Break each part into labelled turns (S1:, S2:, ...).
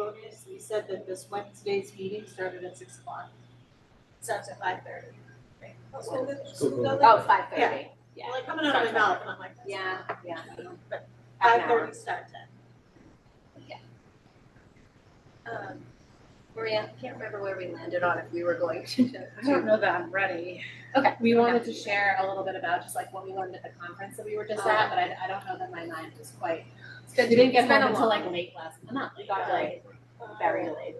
S1: bonus, we said that this Wednesday's meeting started at six o'clock.
S2: starts at five thirty.
S3: Oh, five thirty, yeah.
S1: Like coming out of my mouth, and I'm like,
S3: Yeah, yeah.
S1: five thirty start time.
S2: Um, Maria, I can't remember where we landed on if we were going to.
S4: I don't know that I'm ready.
S3: Okay, we wanted to share a little bit about just like what we learned at the conference that we were just at, but I, I don't know that my mind was quite. We didn't get
S2: it's been
S3: home
S2: a
S3: until
S2: long-
S3: like late last, night. not, we got like very late.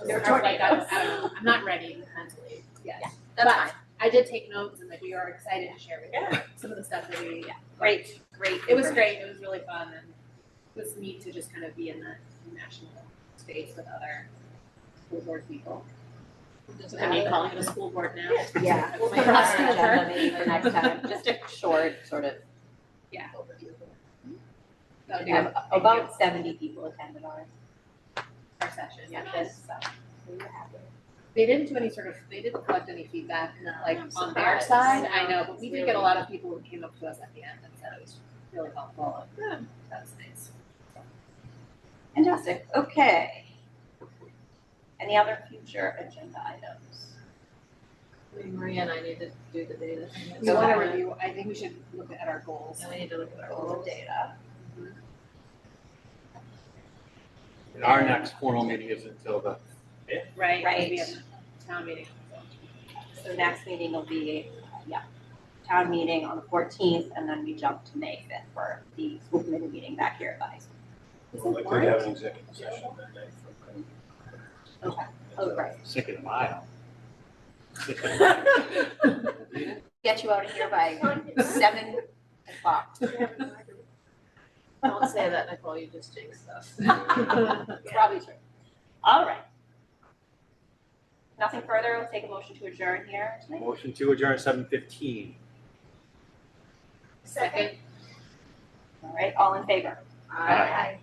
S1: Um,
S3: Just kind of like, I was- I don't know, I'm not ready mentally yet.
S2: That's
S3: But
S2: fine.
S3: I did take notes and like we are excited to share with you some of the stuff that we, yeah.
S2: Great, great.
S3: It was great, it was really fun and it was neat to just kind of be in that national space with other school board people. I mean, calling it a school board now.
S5: Yeah,
S3: We'll
S5: my
S3: put it on
S5: last
S3: our
S5: agenda maybe for next time, just a short sort of,
S3: That would be
S5: um,
S3: a-
S5: about seventy people attended ours.
S3: our session, yeah,
S5: Yes.
S3: so.
S5: So we were happy.
S3: They didn't do any sort of, they didn't collect any feedback, like
S2: I'm
S3: on their
S2: surprised.
S3: side, I know, but we did get a
S2: Really?
S3: lot of people who came up to us at the end and said it was really helpful. Good. That's nice.
S5: Fantastic, okay. Any other future agenda items?
S6: Maria and I need to do the data thing.
S3: We wanna review, I think we should look at our goals.
S6: And we need to look at our
S5: All the
S6: goals.
S5: data.
S7: And Our next formal meeting is until the
S3: Right. Maybe
S5: Right.
S3: a town meeting.
S5: So next meeting will be, uh, yeah, town meeting on the fourteenth, and then we jump to May fifth for the school committee meeting back here at the high school.
S8: Likely to have an executive session that night.
S5: Okay, oh, right.
S7: second mile.
S5: Get you out of here by seven o'clock.
S6: Don't say that, Nicole, you just jinxed us.
S5: Probably true. All right. Nothing further, we'll take a motion to adjourn here tonight.
S7: Motion to adjourn seven fifteen.
S2: Second.
S5: All right, all in favor?
S7: Aye.
S2: Aye.